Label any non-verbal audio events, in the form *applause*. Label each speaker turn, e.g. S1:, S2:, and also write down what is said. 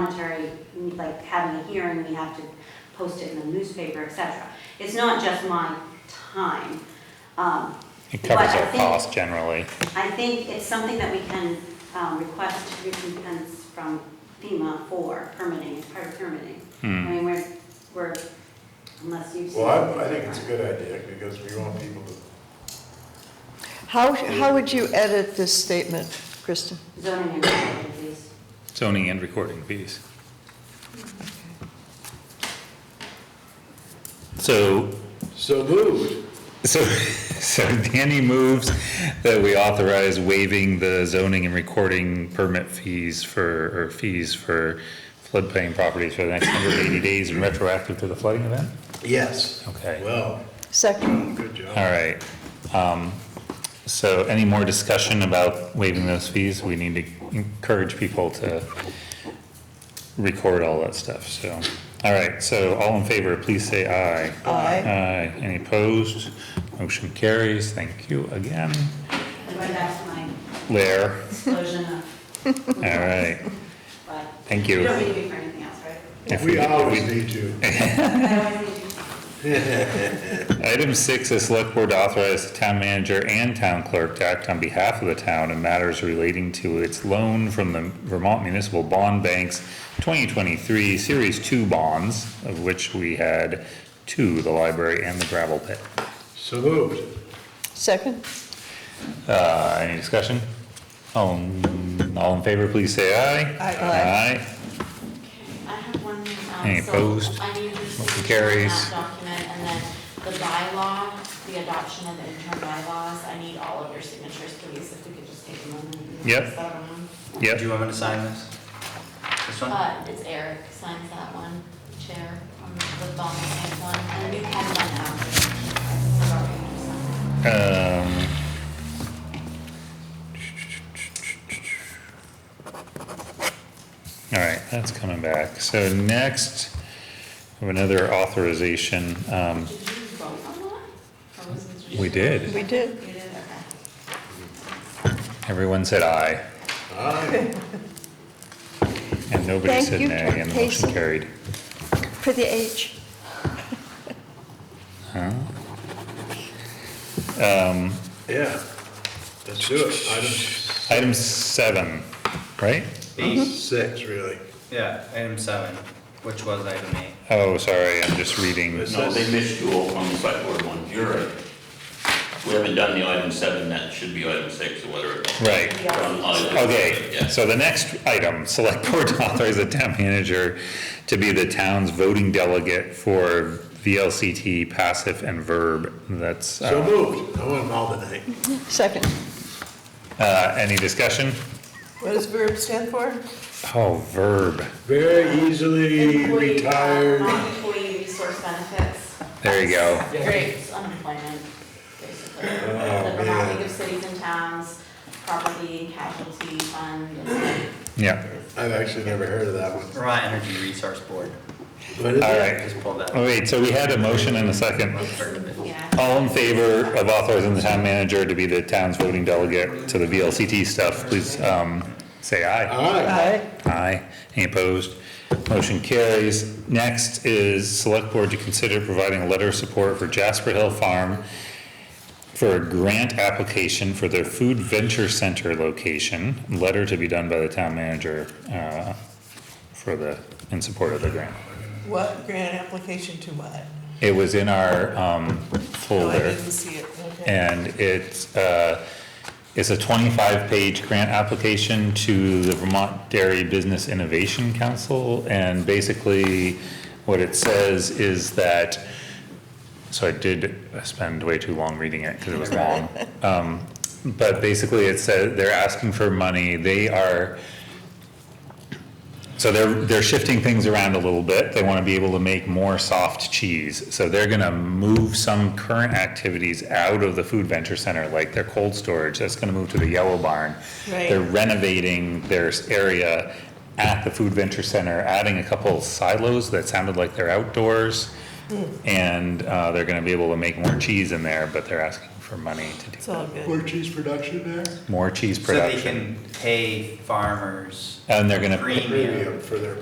S1: monetary, like having a hearing, we have to post it in the newspaper, et cetera. It's not just my time. Um,
S2: It covers
S1: But I
S2: our
S1: think-
S2: costs generally.
S1: I think it's something that we can um, request recompense from FEMA for permitting, it's part of permitting.
S2: Hmm.
S1: I mean, we're, we're, unless you've seen.
S3: Well, I, I think it's a good idea, because we want people to,
S4: How, how would you edit this statement, Kristen?
S1: Zoning and regulations, please.
S2: Zoning and recording fees. So,
S3: so moved.
S2: so, *laughs* so Danny moves that we authorize waiving the zoning and recording permit fees for, or fees for floodplain properties for the next hundred and eighty days and retroactive to the flooding event?
S3: Yes.
S2: Okay.
S3: Well,
S4: Second,
S3: good job.
S2: All right. Um, so any more discussion about waiving those fees? We need to encourage people to record all that stuff, so. All right, so all in favor, please say aye.
S4: Aye.
S2: Aye. Any opposed? Motion carries. Thank you again.
S1: I'm going back to my
S2: Lair,
S1: explosion of,
S2: all *laughs* right.
S1: *laughs* but
S2: Thank
S1: you
S2: you.
S1: don't need to be for anything else, right?
S3: *laughs*
S2: If
S3: We
S2: if
S3: always need to.
S1: I always need to-
S2: Item six is select board to authorize the town manager and town clerk to act on behalf of the town in matters relating to its loan from the Vermont Municipal Bond Bank's twenty twenty-three Series Two bonds, of which we had two, the library and the gravel pit.
S3: So moved.
S4: second?
S2: Uh, any discussion? All, in- all in favor, please say aye.
S4: Aye. Aye.
S2: Aye.
S5: I have one, um.
S2: Any
S5: so
S2: opposed?
S5: I need you to see
S2: Motion
S5: the
S2: carries.
S5: draft document, and then the bylaw, the adoption of the interim bylaws, I need all of your signatures, please, if we could just take a moment. and
S2: Yep.
S5: pass that around.
S2: Yep,
S6: Do you want me to sign this? This one?
S5: Uh, it's Eric signs that one, chair, um, the bond bank one, and you can one out.
S2: um. All right, that's coming back. So next, we have another authorization, um,
S5: Did you vote on that? Or was it just-
S2: We did.
S4: We did.
S5: You did, okay.
S2: everyone said aye,
S3: Aye.
S2: and nobody
S4: Thank
S2: said
S4: you,
S2: nay, and the motion
S4: Jason.
S2: carried.
S4: For the H.
S2: Um,
S3: Yeah. Let's do it. Item
S2: item seven, right?
S6: B,
S3: six, really.
S6: yeah, item seven, which was item eight.
S2: Oh, sorry, I'm just reading.
S3: This-
S7: No, they missed you all on the select board one, you're right. We haven't done the item seven, that should be item six or whatever.
S2: Right. Okay,
S7: Yes.
S2: so the next item, select board to authorize the town manager to be the town's voting delegate for VLCT passive and verb. That's,
S3: So
S2: uh,
S3: moved. I want them all tonight.
S4: Second.
S2: uh, any discussion?
S4: What does verb stand for?
S2: Oh, verb.
S3: Very easily
S5: Employee, uh,
S3: retired.
S5: Non-employee resource benefits.
S2: There you go.
S5: Great, unemployment, basically. The Vermont
S3: man.
S5: League of Cities and Towns, property and casualty fund.
S2: Yeah.
S3: I've actually never heard of that one.
S6: Vermont Energy Resource Board,
S3: What is
S2: All
S3: it?
S2: right.
S6: just pulled that.
S2: Oh, Wait, so we had a motion and a second.
S6: Part of it.
S5: Yeah.
S2: All in favor of authorizing the town manager to be the town's voting delegate to the VLCT stuff, please, um, say aye.
S3: Aye.
S4: Aye.
S2: Aye. Any opposed? Motion carries. Next is select board to consider providing a letter of support for Jasper Hill Farm for a grant application for their food venture center location. Letter to be done by the town manager, uh, for the, in support of the grant.
S8: What grant application to what?
S2: It was in our, um, folder.
S8: No, Oh, I didn't see it, okay.
S2: And it's, uh, it's a twenty-five page grant application to the Vermont Dairy Business Innovation Council. And basically, what it says is that, so I did spend way too long reading it because it was long. Um, but basically, it said they're asking for money. They are, so they're, they're shifting things around a little bit. They want to be able to make more soft cheese. So they're going to move some current activities out of the food venture center, like their cold storage. That's going to move to the yellow barn.
S8: Right.
S2: They're renovating their s- area at the food venture center, adding a couple silos that sounded like they're outdoors. And uh, they're going to be able to make more cheese in there, but they're asking for money to
S4: It's
S2: do
S4: all
S2: that.
S4: good.
S3: More cheese production there?
S2: More cheese
S6: So they
S2: production.
S6: can pay farmers
S2: And they're gonna.
S6: Green.
S3: Premium for their